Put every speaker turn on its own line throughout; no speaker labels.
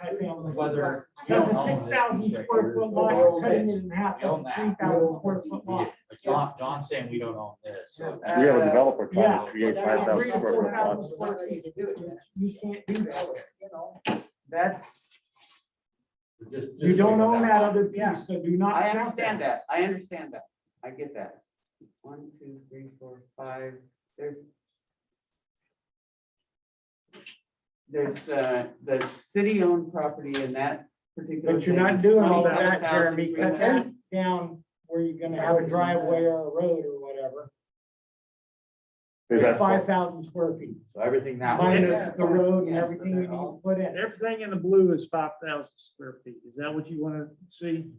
multifamily.
Whether. you
That's
don't
a
own
six
this
thousand
piece right
square
here,
foot
but
lot,
we
you're
own
cutting
this.
it in half,
We own that.
three thousand square foot
Yeah,
lot.
But John, John's saying we don't own this, so.
Yeah.
We have
Uh,
a developer trying
Yeah.
to create
That
five
means
thousand
three to
square
four
foot lots.
thousand square feet to do it,
You can't do that.
you know, That's,
just- just
You don't
think of
own that
lot.
other
Yeah.
piece, so do not.
I
count
understand that, I understand that, I get that. One, two, three, four, five, there's. There's, uh, the city-owned property in that particular.
But you're
thing
not
is
doing all of that,
27,300.
Jeremy, cut that down where you're gonna have a driveway or a road or whatever.
Is
It's
that-
five thousand square feet,
So everything that way,
minus the road and
Yeah, so
everything you
they're
need to
all-
put in.
Everything in the blue is five thousand square feet. Is that what you want to see?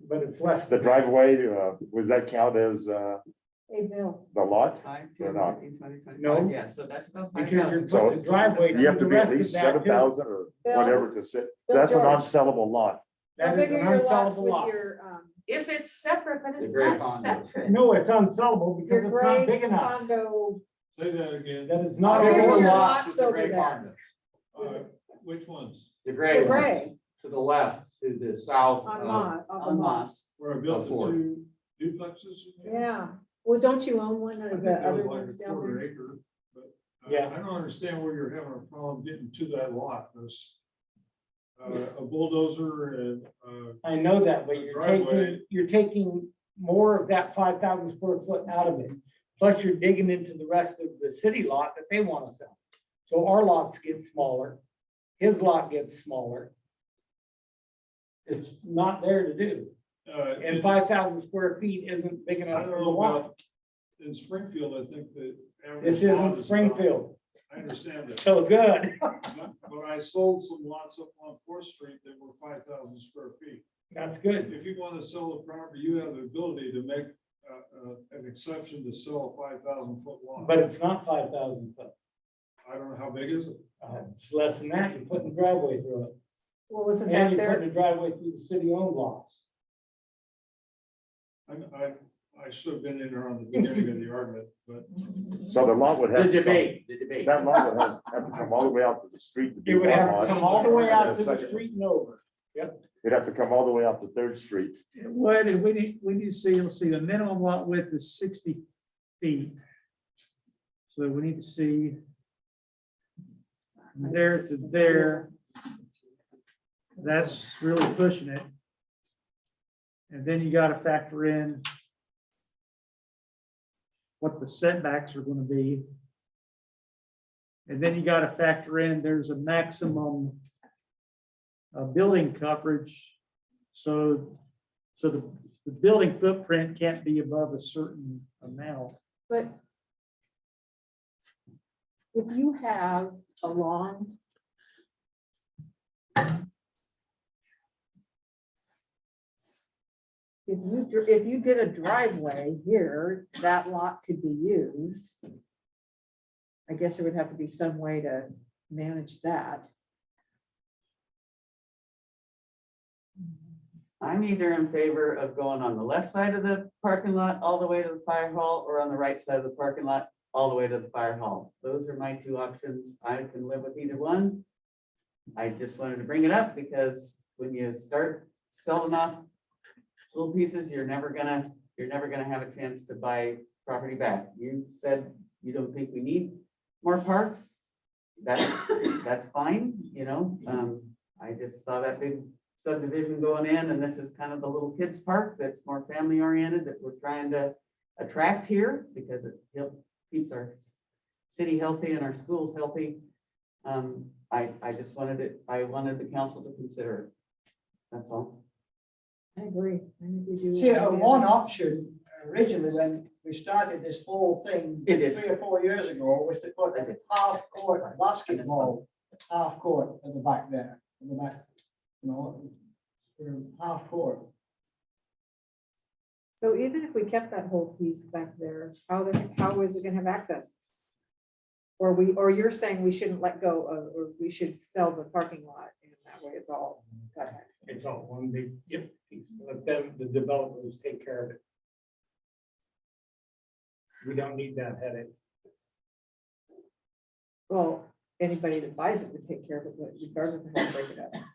But it's less.
The driveway, uh, would that count as, uh,
Hey, Bill,
the lot?
Five,
They're
ten,
not.
fifteen, twenty, twenty-five.
No.
Yeah, so that's about five
Because you're
thousand.
putting
the driveway-
You have to be
The
at
rest
least
is that
seven
too.
thousand or
Bill.
whatever to sit, that's an
Bill,
unsellable lot.
That
how
is
big
an
are your lots
unsellable
with
lot.
your, um,
If it's separate, but
The
it's
gray
not
condo.
separate.
No, it's unsellable because
your
it's not big
gray
enough.
condo?
Say that again,
That is not.
How big are
All
your
the
allowable.
lots
lots
with the
over
gray
there?
condos,
uh, which ones?
The
the
gray ones,
Gray
to the left, to the south.
on
of-
Mon, on the
On
Mon.
Moss.
Where I built the
Four.
two duplexes? you mean?
Yeah, well, don't you own one
I
of
think
the
that was
other
like
ones
a
down
quarter
there?
acre, but uh,
Yeah.
I don't understand where you're having a problem getting to that lot, 'cause, uh, a bulldozer and, uh,
I know that, but you're taking,
Driveway.
you're taking more of that five thousand square foot out of it. Plus you're digging into the rest of the city lot that they want to sell. So our lots get smaller, his lot gets smaller. It's not there to do,
uh.
and five thousand square feet isn't big
I
enough
don't
for the
know
lot.
about, in Springfield, I think the.
This
average lot is
isn't
about-
Springfield,
I understand that,
so good,
but but I sold some lots up on Fourth Street that were five thousand square feet.
that's good.
If you want to sell the property, you have the ability to make uh, uh, an exception to sell a five thousand foot lot.
But it's not five thousand foot,
I don't know, how big is it?
Uh, it's less than that, you're putting a driveway through it,
Well, wasn't
and
that
you're
there?
putting a driveway through the city owned lots.
I'm- I, I should have been in there on the beginning of the argument, but
So the lot would have.
The
to come-
debate, the debate.
That lot would have, have to come all the way out to the street to be
It would
one
have to
lot.
come all the way out to the
Second-
street and over.
It'd have to come all the way out to Third Street.
It would, and we need, we need to see, let's see, the minimum lot width is sixty feet. So we need to see there to there, that's really pushing it. And then you gotta factor in what the setbacks are gonna be. And then you gotta factor in, there's a maximum uh, building coverage. So, so the, the building footprint can't be above a certain amount.
But if you have a long if you, dr- if you did a driveway here, that lot could be used. I guess there would have to be some way to manage that.
I'm either in favor of going on the left side of the parking lot all the way to the fire hall or on the right side of the parking lot all the way to the fire hall. Those are my two options. I can live with either one. I just wanted to bring it up because when you start selling off little pieces, you're never gonna, you're never gonna have a chance to buy property back. You said you don't think we need more parks. That's, that's fine, you know, um, I just saw that big subdivision going in, and this is kind of the little kids park that's more family oriented that we're trying to attract here because it help- keeps our s- city healthy and our schools healthy. Um, I, I just wanted it, I wanted the council to consider it. That's all.
I agree. I think we do.
See, uh, one option originally when we started this whole thing
It is.
three or four years ago was to put a half court basketball, half court at the back there, at the back, you know, um, half court.
So even if we kept that whole piece back there, how, the- how is it gonna have access? Or we, or you're saying we shouldn't let go of, or we should sell the parking lot and that way it's all. got access.
It's all one big, yep, piece. Let them, the developers take care of it. We don't need that headache.
Well, anybody that buys it would take care of it, but regardless of how to break it up.